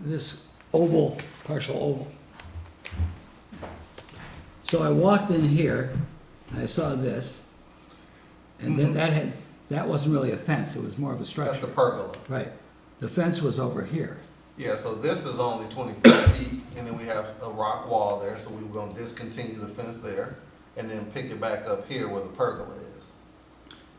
this oval, partial oval. So I walked in here, and I saw this, and then that had, that wasn't really a fence, it was more of a Mm-hmm. That's the structure. pergola. Right, the fence was over here, Yeah, so this is only twenty-four feet, and then we have a rock wall there, so we are gonna discontinue the fence there, and then pick it back up here where the pergola is.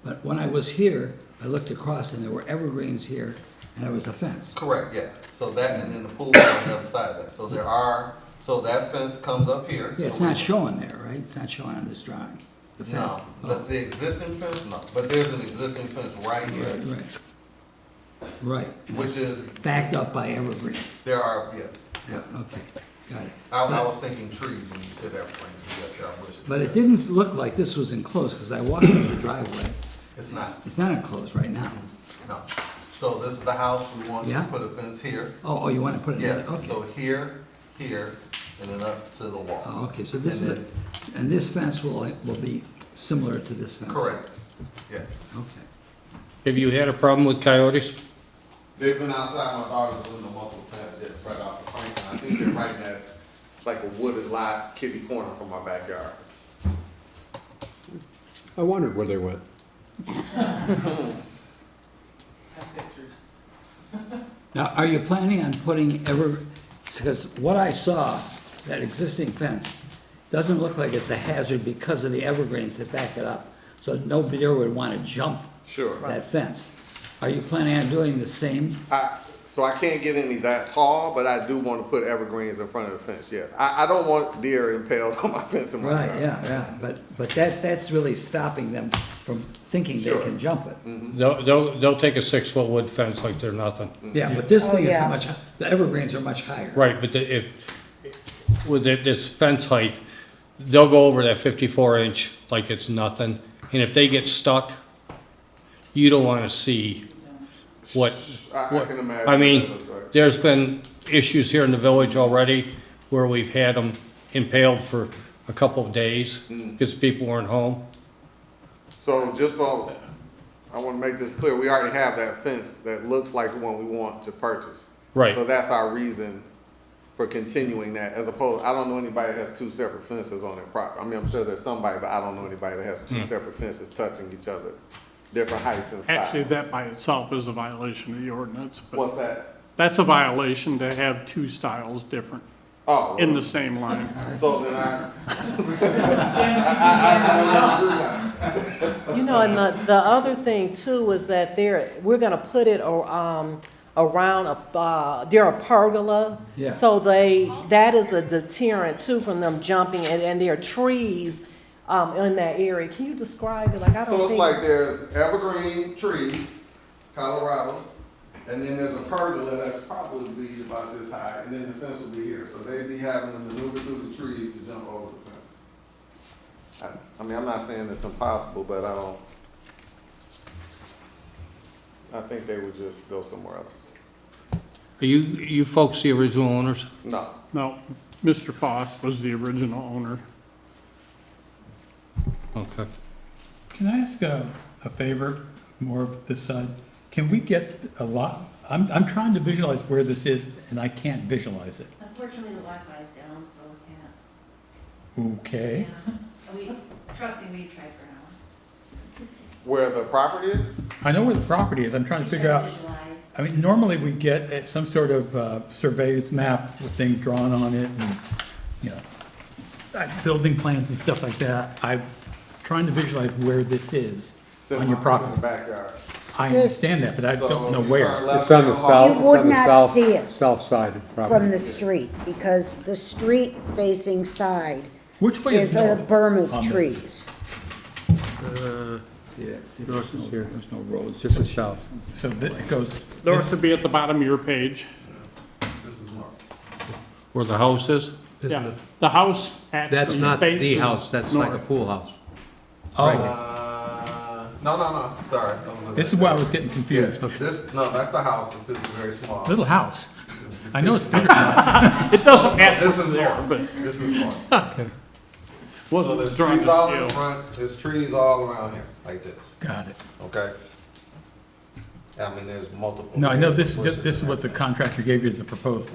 but when I was here, I looked across and there were evergreens here, and there was a fence. Correct, yeah, so that, and then the pool is on the other side of that, so there are, so that fence comes up here. Yeah, it's not showing there, right? It's not showing on this drawing, the fence. No, the, Oh, the existing fence, no, but there's an existing fence right Right, here, right. Right, and which it's is, backed up by evergreens, there are, yeah, yeah, okay, got it. I, I was thinking trees when you said that, Frank, yes, I wish. But it didn't look like this was enclosed, because I walked into the driveway. It's not. It's not enclosed right now. No. So this is the house, we want Yeah. to put a fence here. Oh, oh, you want to put it in? Yeah, Okay. so here, here, and then up to the wall. Oh, okay, so this is, And a- and this fence will, will be similar to this fence? Correct, yes. Okay. Have you had a problem with coyotes? They've been outside my daughter's window multiple times, yes, right off the Franklin. I think they're right now, it's like a wooded lot, kitty corner from my backyard. I wondered where they went. Now, are you planning on putting ever, because what I saw, that existing fence, doesn't look like it's a hazard because of the evergreens that back it up. So no deer would want to jump Sure. that fence. Are you planning on doing the same? I, so I can't get any that tall, but I do want to put evergreens in front of the fence, yes. I, I don't want deer impaled on my fence in my Right, yard. yeah, yeah, but, but that, that's really stopping them from thinking they Sure. can jump it. They'll, they'll, they'll take a six-foot wood fence like they're nothing. Yeah, but this Oh, thing is yeah. so much, the evergreens are much higher. Right, but the- if, with it- this fence height, they'll go over that fifty-four inch like it's nothing. And if they get stuck, you don't wanna see what, I, I can imagine. I mean, That's right. there's been issues here in the village already where we've had them impaled for a couple of days Mm. because people weren't home. So just so, I want to make this clear, we already have that fence that looks like the one we want to purchase. Right. So that's our reason for continuing that, as opposed, I don't know anybody that has two separate fences on their property. I mean, I'm sure there's somebody, but I don't know anybody that has Hmm. two separate fences touching each other, different heights and sizes. Actually, that by itself is a violation of the ordinance, but What's that? that's a violation to have two styles different Oh, in the same line. so then I. I- I- I don't know. You know, and the, the other thing too is that there, we're gonna put it, ar- um, around a, uh, there are pergola. Yeah. So they, that is a deterrent too from them jumping and, and there are trees, um, in that area. Can you describe it? Like, I don't think. So it's like there's evergreen trees, Colorados, and then there's a pergola that's probably be about this high, and then the fence will be here. So they'd be having to maneuver through the trees to jump over the fence. I, I mean, I'm not saying it's impossible, but I don't, I think they would just go somewhere else. Are you, you folks the original owners? No. No, Mr. Foss was the original owner. Okay. Can I ask a, a favor, more of this side? Can we get a lot, I'm, I'm trying to visualize where this is, and I can't visualize it. Unfortunately, the Wi-Fi is down, so we Okay, can't. Yeah. We, trust me, we tried for an hour. Where the property is? I know where the property is, I'm trying to We figure tried to out, Visualize. I mean, normally we get uh, some sort of, uh, surveys map with things drawn on it and, you know, uh, building plans and stuff like that. I'm trying to visualize where this is on your It's property. in the backyard. I understand that, but I So don't know if you turn where. left It's on down the Hall- south, You would it's on the not south, see it. south side of the from property. the street, because the street facing side Which way is is a north? berm of on this? trees. See that? See, there's no, there's no roads. Just the south. So that goes. North would be at the bottom of your page. Where the house is? Yeah, the house actually faces That's not the house, that's like a north. pool house. Oh, Uh, no, no, no, sorry. Don't look this at is why I that. was getting confused. This, no, that's the house, it's just very small. Little house. I know it's bigger than that. It doesn't match This what's is there, north, but it this is north. So wasn't there's drawn trees all to in scale. front, there's trees all around here, like this, Got it. okay? I mean, there's multiple. No, I know layers of this, bushes this is and what the everything. contractor gave you as a proposal.